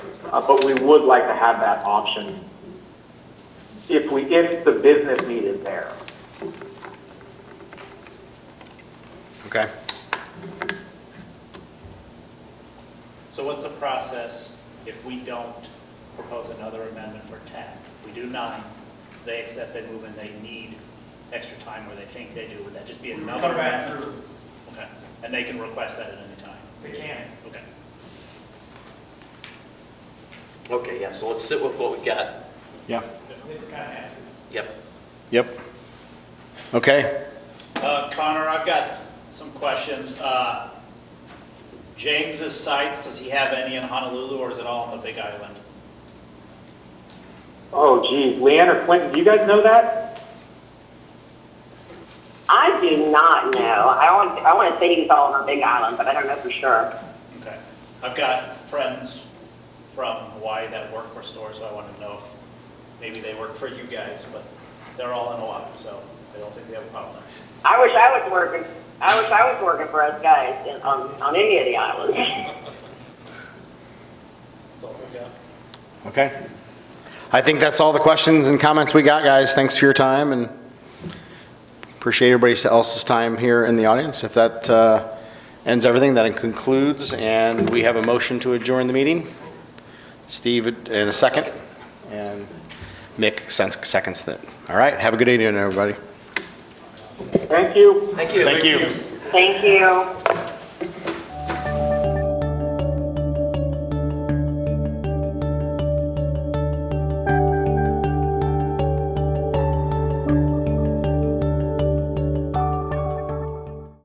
Uh, But we would like to have that option if we, if the business need is there. Okay. So what's the process if we don't propose another amendment for 10? We do nine, they accept, they move in, they need extra time where they think they do, would that just be We would another come back amendment? through, Okay, and they can request that at any time, they can. okay. Okay, yeah, so let's sit with what we got. Yeah. They kind of have to. Yep. Yep. Okay. Uh, Connor, I've got some questions. Uh, James's sites, does he have any in Honolulu or is it all on the Big Island? Oh geez, Leanne or Clinton, do you guys know that? I do not know. I want, I want to say he's all over Big Island, but I don't know for sure. Okay. I've got friends from Hawaii that work for stores, so I want to know if maybe they work for you guys, but they're all in Hawaii, so I don't think they have a problem there. I wish I was working, I wish I was working for us guys in, on, on any of the islands. That's all we got. Okay. I think that's all the questions and comments we got, guys. Thanks for your time and appreciate everybody else's time here in the audience. If that uh, ends everything, that concludes, and we have a motion to adjourn the meeting. Steve in a second, and Mick sens- seconds that. All right, have a good evening, everybody. Thank you. Thank you. Thank you. Thank you.